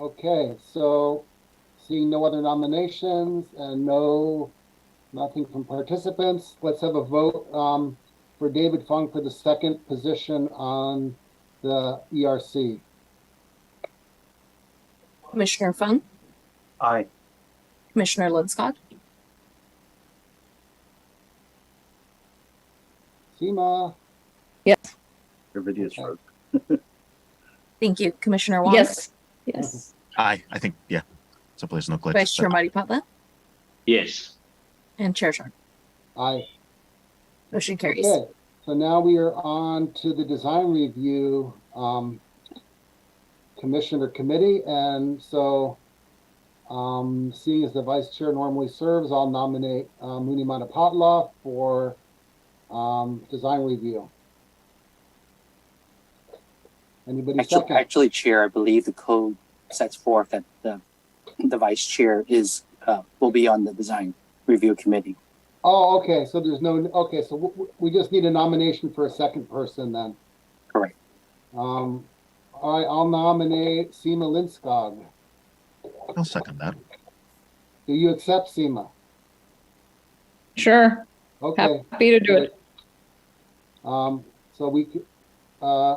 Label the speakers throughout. Speaker 1: Okay, so seeing no other nominations and no, nothing from participants, let's have a vote um, for David Funk for the second position on the E ERC.
Speaker 2: Commissioner Fung,
Speaker 3: Aye.
Speaker 2: Commissioner Linscott,
Speaker 1: Seema,
Speaker 3: Your video's frozen.
Speaker 2: thank you, Commissioner Wong.
Speaker 4: Yes, yes.
Speaker 5: Aye, I think, yeah. Someplace no glitch.
Speaker 2: Vice Chair Matipatla
Speaker 6: Yes.
Speaker 2: and Chair Sharp.
Speaker 1: aye.
Speaker 2: Motion carries.
Speaker 1: Okay, so now we are on to the design review um, commissioner committee, and so um, seeing as the vice chair normally serves, I'll nominate uh, Muni Matapatla for um, design review. Anybody
Speaker 7: Actually,
Speaker 1: second?
Speaker 7: actually, Chair, I believe the code sets forth that the, the vice chair is, uh, will be on the design review committee.
Speaker 1: Oh, okay, so there's no, okay, so w- w- we just need a nomination for a second person then.
Speaker 7: Correct.
Speaker 1: Um, all right, I'll nominate Seema Linskog.
Speaker 5: I'll second that.
Speaker 1: Do you accept SEMA?
Speaker 4: Sure.
Speaker 1: Okay.
Speaker 4: Happy to do it.
Speaker 1: Um, so we, c- uh,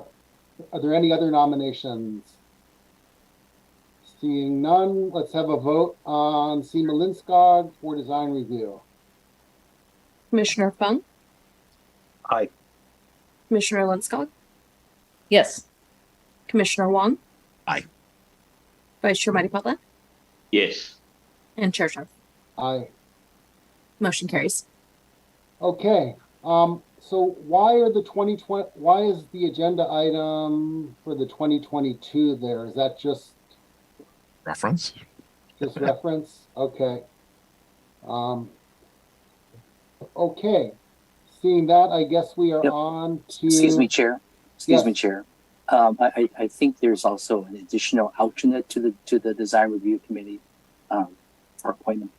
Speaker 1: are there any other nominations? Seeing none, let's have a vote on SEMA Linskog for design review.
Speaker 2: Commissioner Fung.
Speaker 3: Aye.
Speaker 2: Commissioner Linscott,
Speaker 4: Yes.
Speaker 2: Commissioner Wong.
Speaker 5: Aye.
Speaker 2: Vice Chair Matipatla
Speaker 6: Yes.
Speaker 2: and Chair Sharp.
Speaker 1: Aye.
Speaker 2: Motion carries.
Speaker 1: Okay, um, so why are the twenty twenty, why is the agenda item for the twenty twenty-two there? Is that just,
Speaker 5: Reference?
Speaker 1: just reference? Okay. Um, okay, seeing that, I guess we are
Speaker 7: Yep.
Speaker 1: on to.
Speaker 7: Excuse me, Chair. Excuse
Speaker 1: Yes.
Speaker 7: me, Chair. Um, I, I, I think there's also an additional alternate to the, to the design review committee, um, for appointment.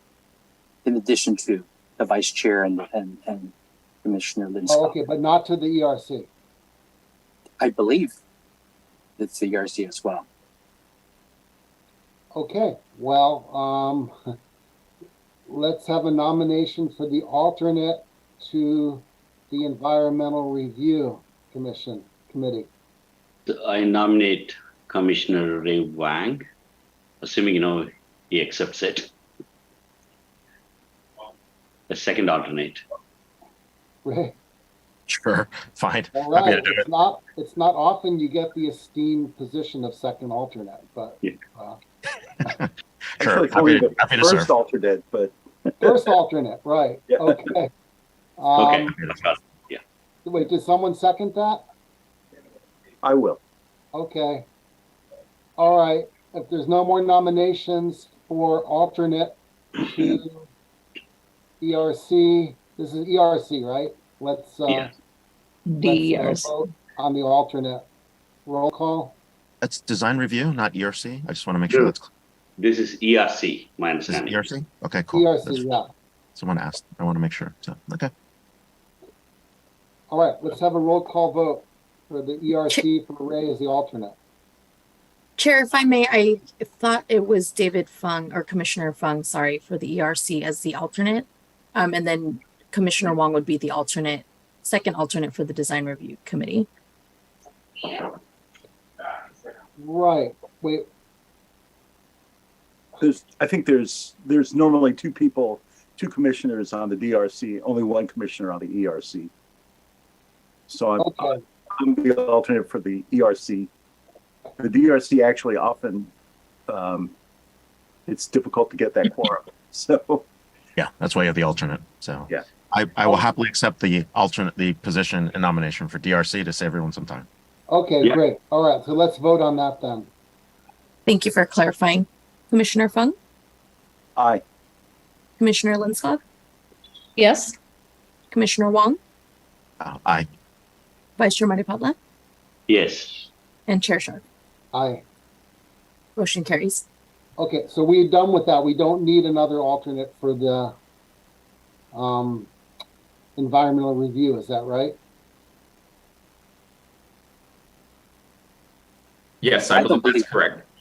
Speaker 7: In addition to the vice chair and, and, and Commissioner
Speaker 1: Oh,
Speaker 7: Linscott,
Speaker 1: okay, but not to the ERC.
Speaker 7: I believe it's the ERC as well.
Speaker 1: Okay, well, um, let's have a nomination for the alternate to the Environmental Review Commission Committee.
Speaker 6: I nominate Commissioner Ray Wang, assuming, you know, he accepts it. The second alternate.
Speaker 1: Right,
Speaker 5: Sure, fine.
Speaker 1: all
Speaker 5: Happy
Speaker 1: right,
Speaker 5: to do
Speaker 1: it's not, it's not often you get the esteemed position of second alternate, but
Speaker 6: Yeah.
Speaker 1: uh,
Speaker 5: it. Sure,
Speaker 3: Actually,
Speaker 5: happy
Speaker 3: Corey,
Speaker 5: to,
Speaker 3: the
Speaker 5: happy to
Speaker 3: first
Speaker 5: serve.
Speaker 3: alternate, but
Speaker 1: first alternate, right,
Speaker 3: Yeah.
Speaker 1: okay.
Speaker 6: Okay.
Speaker 1: Um, wait, did someone second that?
Speaker 3: I will.
Speaker 1: Okay. All right, if there's no more nominations for alternate to ERC, this is ERC, right? Let's, uh,
Speaker 6: Yeah.
Speaker 1: let's
Speaker 5: E
Speaker 1: have a
Speaker 4: DRC.
Speaker 1: vote on the alternate. Roll call?
Speaker 5: That's design review, not ERC. I just want to make sure
Speaker 6: Sure.
Speaker 5: that's,
Speaker 6: This is ERC, my
Speaker 5: this is E
Speaker 6: understanding.
Speaker 5: ERC? Okay, cool.
Speaker 1: ERC,
Speaker 5: That's-
Speaker 1: E yeah.
Speaker 5: Someone asked. I want to make sure. So, okay.
Speaker 1: All right, let's have a roll call vote for the ERC for Ray as the alternate.
Speaker 2: Chair, if I may, I thought it was David Fung or Commissioner Fung, sorry, for the ERC as the alternate. Um, and then Commissioner Wong would be the alternate, second alternate for the design review committee.
Speaker 1: Right, wait,
Speaker 3: There's, I think there's, there's normally two people, two commissioners on the DRC, only one commissioner on the ERC. So I'm,
Speaker 1: okay,
Speaker 3: I'm the alternate for the ERC. The DRC actually often, um, it's difficult to get that quorum. So,
Speaker 5: Yeah, that's why you have the alternate. So.
Speaker 3: Yeah.
Speaker 5: I, I will happily accept the alternate, the position and nomination for DRC to save everyone some time.
Speaker 1: okay,
Speaker 6: Yeah.
Speaker 1: great. All right, so let's vote on that then.
Speaker 2: Thank you for clarifying. Commissioner Fung,
Speaker 3: aye.
Speaker 2: Commissioner Linscott,
Speaker 4: Yes.
Speaker 2: Commissioner Wong,
Speaker 5: Uh, aye.
Speaker 2: Vice Chair Matapatla,
Speaker 6: Yes.
Speaker 2: and Chair Sharp.
Speaker 1: Aye.
Speaker 2: Motion carries.
Speaker 1: Okay, so we're done with that. We don't need another alternate for the um, environmental review, is that right?
Speaker 8: Yes, I
Speaker 7: I don't
Speaker 8: believe
Speaker 7: believe-
Speaker 8: that's correct.